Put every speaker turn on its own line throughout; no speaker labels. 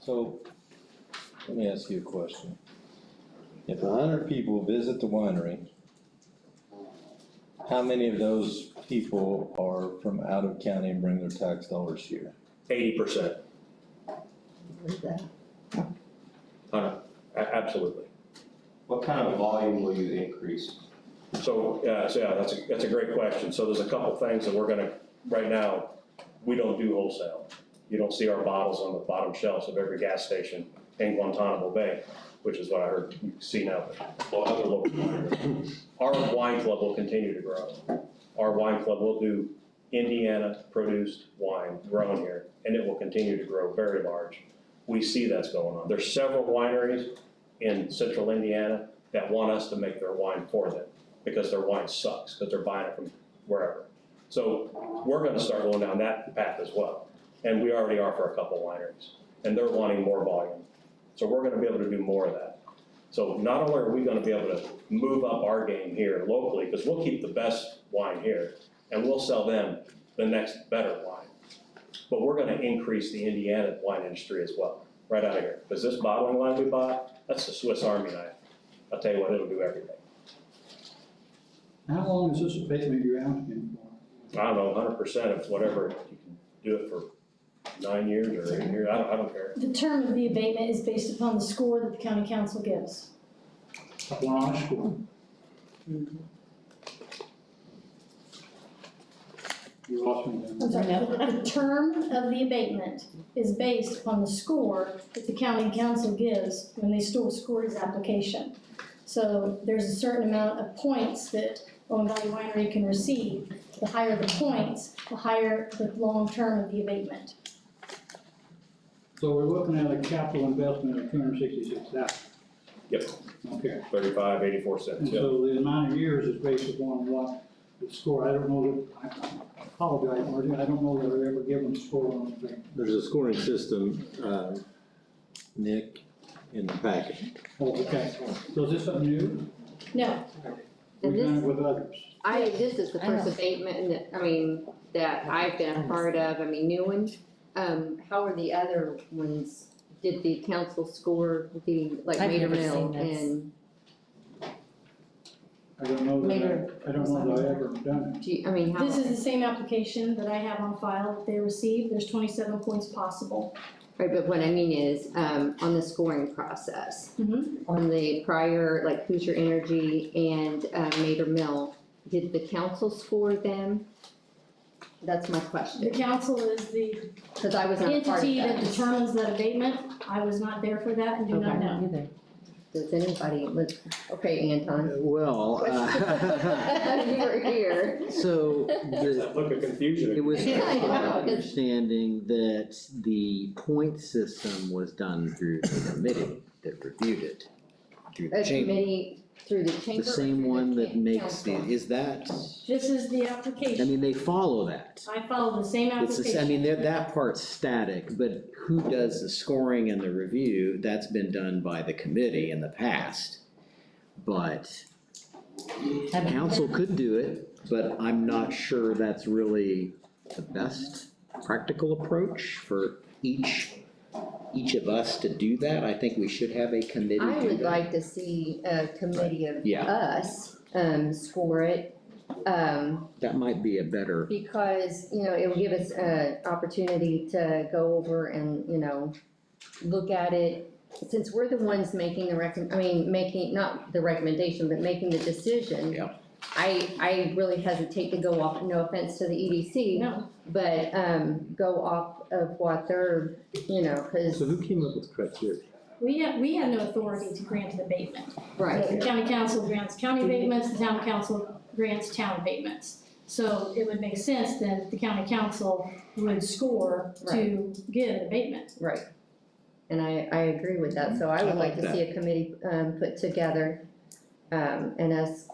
So, let me ask you a question. If a hundred people visit the winery, how many of those people are from out of county and bring their tax dollars here?
Eighty percent,
With that.
absolutely.
What kind of volume will you increase?
So, yeah, so yeah, that's, a- that's a great question. So there's a couple things that we're gonna, right now, we don't do wholesale. You don't see our bottles on the bottom shelves of every gas station in Guantanamo Bay, which is what I heard you see now, but other local wineries. Our wine club will continue to grow. Our wine club will do Indiana produced wine grown here, and it will continue to grow very large. We see that's going on. There's several wineries in central Indiana that want us to make their wine for them because their wine sucks, because they're buying it from wherever. So we're gonna start going down that path as well. And we already are for a couple wineries, and they're wanting more volume. So we're gonna be able to do more of that. So not only are we gonna be able to move up our game here locally, because we'll keep the best wine here, and we'll sell them the next better wine. But we're gonna increase the Indiana wine industry as well, right out of here. Because this bottling line we bought, that's the Swiss Army knife. I'll tell you what, it'll do everything.
How long is this abatement you're asking
I don't know, hundred percent of whatever, you can do it for nine years or eight years, I don't, I don't care.
The term of the abatement is based upon the score that the county council gives.
for? One high school. You lost me
I'm
then.
sorry,
No.
the the term of the abatement is based upon the score that the county council gives when they store, score his application. So there's a certain amount of points that Owen Valley Winery can receive. The higher the points, the higher the long term of the abatement.
So we're looking at a capital investment of two hundred sixty-six thousand.
Yep.
Okay,
Thirty-five, eighty-four
and
cents, yeah.
so the amount of years is based upon what the score, I don't know, that I apologize, Marty, I don't know that I've ever given a score on a thing.
There's a scoring system, uh, Nick, in the packet.
Oh, okay, so is this something new?
No,
We've done it with others.
I, this is the
I know.
first abatement that, I mean, that I've been a part of, I mean, new one. Um, how are the other ones? Did the council score the, like
I've
Mater
never seen
Mill
this.
and,
I don't know
Mayor.
that, I- I don't know that I've ever done it.
do you, I mean, how?
this is the same application that I have on file that they received. There's twenty-seven points possible.
Right, but what I mean is, um, on the scoring process. On the prior, like Hoosier Energy and, uh, Mater Mill, did the council score them? That's my
The
question,
council is the
cause I was not a part of
entity that
that.
determines that abatement, I was not there for that and do not
Okay.
know.
Either.
Does anybody, look- okay, Anton.
Well, uh,
You were here.
so the,
Look at confusion.
it was
I know,
my
'cause-
understanding that the point system was done through the committee that reviewed it. Through the
A
chamber,
committee through the chamber.
the same
or
one
through the
that makes the,
council?
is that,
This is the
I
application,
mean, they follow that.
I follow the same
It's, the s- I
application.
mean, they're- that part's static, but who does the scoring and the review, that's been done by the committee in the past. But
Haven't-
Council could do it, but I'm not sure that's really the best practical approach for each, each of us to do that. I think we should have a committee
I
do
would
that.
like to see a committee of
Yeah.
us, um, score it. Um,
That might be a better,
because, you know, it will give us an opportunity to go over and, you know, look at it. Since we're the ones making the recom, I mean, making, not the recommendation, but making the decision.
Yeah.
I, I really hesitate to go off, no offense to the E EDC.
No,
But, um, go off of what they're, you know, cause,
so who came up with criteria?
we have, we have no authority to grant an abatement. The
right,
county council grants county abatements, the town council grants town abatements. So it would make sense that the county council would score to give an abatement.
right. And I, I agree with that, so I
I
would like
like
to see a committee, um, put together, um, and us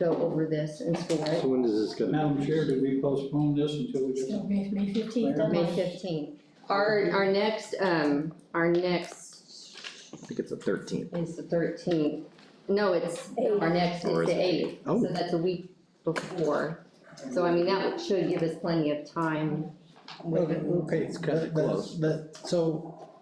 go over this and score it.
when does this come?
Madam Chair, did we postpone this until we get
So
some?
May, May fifteenth
May
deadline.
fifteenth. Our, our next, um, our next
I think it's the thirteenth.
is the thirteenth. No, it's, our next
Or
is
is
the
it?
eighth,
Oh.
so that's a week before. So I mean, that should give us plenty of time. with-
Okay, okay,
It's kinda
but- but-
close.
but- so